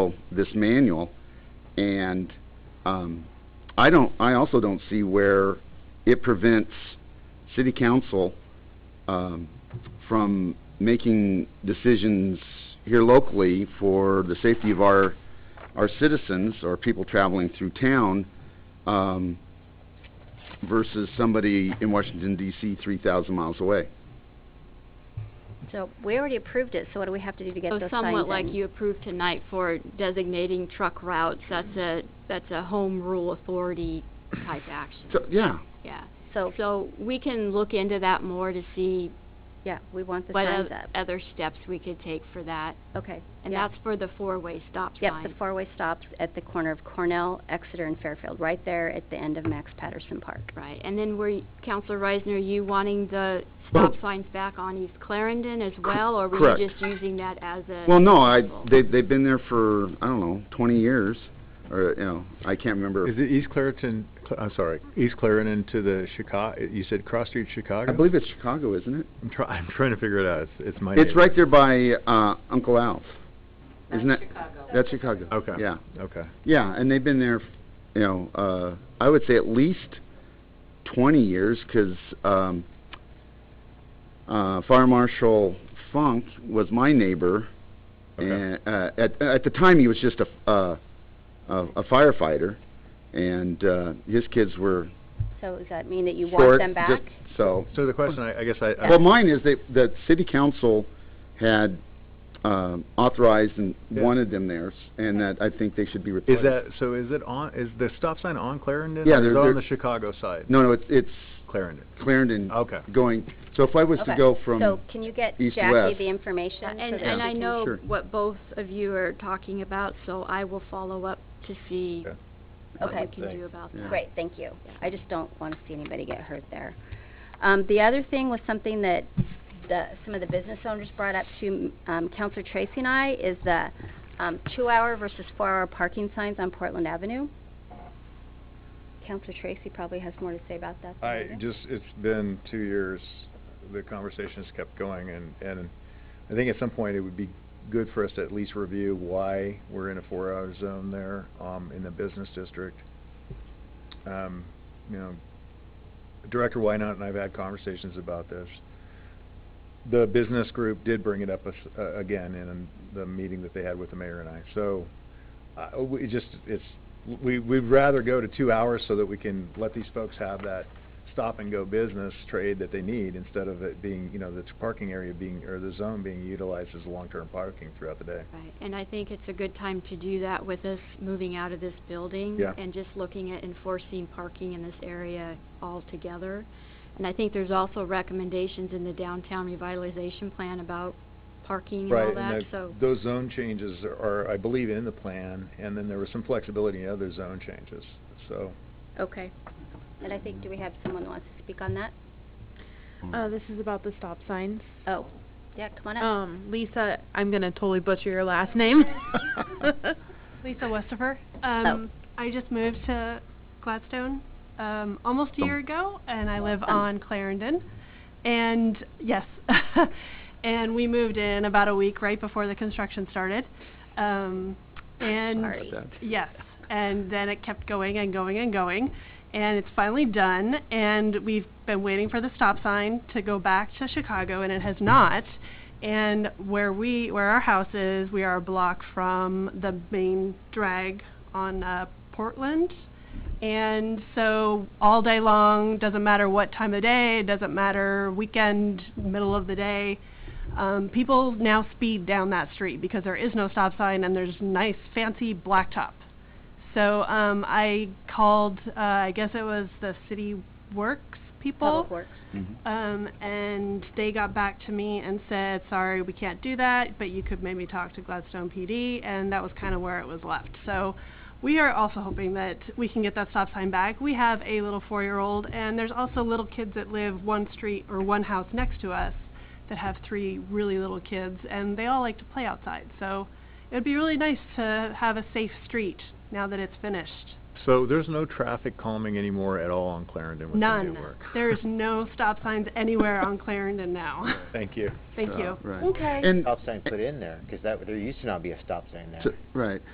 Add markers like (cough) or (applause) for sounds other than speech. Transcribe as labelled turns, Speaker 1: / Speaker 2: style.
Speaker 1: follow this manual, and, um, I don't, I also don't see where it prevents city council, um, from making decisions here locally for the safety of our, our citizens or people traveling through town, um, versus somebody in Washington DC three thousand miles away.
Speaker 2: So we already approved it, so what do we have to do to get
Speaker 3: So
Speaker 2: those signed
Speaker 3: somewhat like
Speaker 2: in?
Speaker 3: you approved tonight for designating truck routes, that's a, that's a home rule authority type action,
Speaker 1: So, yeah,
Speaker 3: yeah.
Speaker 2: So,
Speaker 3: So we can look into that more to see
Speaker 2: yeah, we want the
Speaker 3: what
Speaker 2: signs
Speaker 3: oth-
Speaker 2: up.
Speaker 3: other steps we could take for that.
Speaker 2: Okay.
Speaker 3: And
Speaker 2: yeah.
Speaker 3: that's for the four-way stop
Speaker 2: Yep,
Speaker 3: sign.
Speaker 2: the four-way stops at the corner of Cornell, Exeter, and Fairfield, right there at the end of Max Patterson Park.
Speaker 3: Right, and then were, y- Counselor Reisner, you wanting the
Speaker 1: Well-
Speaker 3: stop signs back on East Clarendon as well? Or were
Speaker 1: correct.
Speaker 3: you just using that as a?
Speaker 1: well, no, I,
Speaker 3: example?
Speaker 1: they, they've been there for, I don't know, twenty years, or, you know, I can't remember.
Speaker 4: Is it East Clareton, Cl- I'm sorry, East Clarendon to the Chicago, you said Cross Street Chicago?
Speaker 1: I believe it's Chicago, isn't it?
Speaker 4: I'm try, I'm trying to figure it out, it's, it's my.
Speaker 1: It's
Speaker 4: neighbor.
Speaker 1: right there by, uh, Uncle Al's. Isn't that? That's Chicago.
Speaker 4: Okay.
Speaker 1: Yeah,
Speaker 4: Okay.
Speaker 1: yeah, and they've been there, f- you know, uh, I would say at least twenty years, 'cause, um, uh, Fire Marshal Funk was my neighbor.
Speaker 4: Okay.
Speaker 1: And, uh, at, at the time, he was just a, f- uh, a a firefighter, and, uh, his kids were
Speaker 2: So does that mean that you want
Speaker 1: short,
Speaker 2: them back?
Speaker 1: just, so.
Speaker 4: So uh, the question, I, I guess I, I-
Speaker 1: Well, mine is that, that city council had, um, authorized and
Speaker 4: Yeah.
Speaker 1: wanted them there, s- and that I think they should be replaced.
Speaker 4: is that, so is it on, is the stop sign on Clarendon?
Speaker 1: Yeah,
Speaker 4: or
Speaker 1: they're-
Speaker 4: Is it
Speaker 1: they're-
Speaker 4: on the Chicago side?
Speaker 1: No, no, it's, it's
Speaker 4: Clarendon,
Speaker 1: Clarendon
Speaker 4: okay.
Speaker 1: going, so if I was to
Speaker 2: Okay,
Speaker 1: go from,
Speaker 2: So can you get
Speaker 1: east to
Speaker 2: Jackie
Speaker 1: west.
Speaker 2: the
Speaker 3: Yeah,
Speaker 2: information?
Speaker 3: Uh, And,
Speaker 2: so that
Speaker 3: and
Speaker 2: she
Speaker 3: I
Speaker 2: can-
Speaker 3: know
Speaker 1: Sure.
Speaker 3: what both of you are talking about, so I will follow up to see
Speaker 4: Okay.
Speaker 3: what we
Speaker 2: Okay.
Speaker 3: can do about
Speaker 1: Yeah.
Speaker 3: that.
Speaker 2: Great, thank you. I just don't want to see anybody get hurt there. Um, the other thing was something that the, some of the business owners brought up to, um, Counselor Tracy and I, is the, um, two-hour versus four-hour parking signs on Portland Avenue. Counselor Tracy probably has more to say about that than I
Speaker 4: I
Speaker 2: do.
Speaker 4: just, it's been two years, uh, the conversation's kept going, and, and I think at some point it would be good for us to at least review why we're in a four-hour zone there, um, in the business district. Um, you know, Director Wynot and I've had conversations about this. The business group did bring it up us, uh, again in the meeting that they had with the mayor and I, so, uh, we just, it's, we, we'd rather go to two hours so that we can let these folks have that stop-and-go business trade that they need instead of it being, you know, the parking area being, or the zone being utilized as long-term parking throughout the day.
Speaker 3: Right, and I think it's a good time to do that with us moving out of this building.
Speaker 4: Yeah.
Speaker 3: And just looking at enforcing parking in this area altogether. And I think there's also recommendations in the downtown revitalization plan about parking and all
Speaker 4: Right,
Speaker 3: that,
Speaker 4: and the,
Speaker 3: so.
Speaker 4: those zone changes are, I believe, in the plan, and then there was some flexibility in other zone changes, so.
Speaker 3: Okay.
Speaker 2: And I think, do we have someone who wants to speak on that?
Speaker 5: Uh, this is about the stop signs.
Speaker 2: Oh, yeah, come on up.
Speaker 5: Um, Lisa, I'm gonna totally butcher your last name. (laughs)
Speaker 6: Lisa Westifer. Um, I just moved to Gladstone um, almost a year ago, and I live
Speaker 2: Welcome.
Speaker 6: on Clarendon. And yes, (laughs) and we moved in about a week right before the construction started. Um, and
Speaker 2: Sorry.
Speaker 6: yes, and then it kept going and going and going, and it's finally done. And we've been waiting for the stop sign to go back to Chicago, and it has not. And where we, where our house is, we are a block from the main drag on uh, Portland. And so all day long, doesn't matter what time of day, doesn't matter weekend, middle of the day, um, people now speed down that street because there is no stop sign and there's nice fancy blacktop. So um, I called, uh, I guess it was the city works people
Speaker 2: Public Works.
Speaker 6: um, and they got back to me and said, sorry, we can't do that, but you could maybe talk to Gladstone PD, and that was kind of where it was left. So we are also hoping that we can get that stop sign back. We have a little four-year-old, and there's also little kids that live one street or one house next to us that have three really little kids, and they all like to play outside. So it would be really nice to have a safe street now that it's finished.
Speaker 4: So there's no traffic calming anymore at all on Clarendon with the new
Speaker 6: None.
Speaker 4: work?
Speaker 6: There is
Speaker 4: (laughs)
Speaker 6: no stop signs anywhere on Clarendon now.
Speaker 4: Thank you.
Speaker 6: Thank
Speaker 1: Uh,
Speaker 6: you.
Speaker 1: Right.
Speaker 2: Okay.
Speaker 1: And,
Speaker 4: Uh,
Speaker 7: stop sign put in there, 'cause that, there used to not be a stop sign there.
Speaker 1: so- right,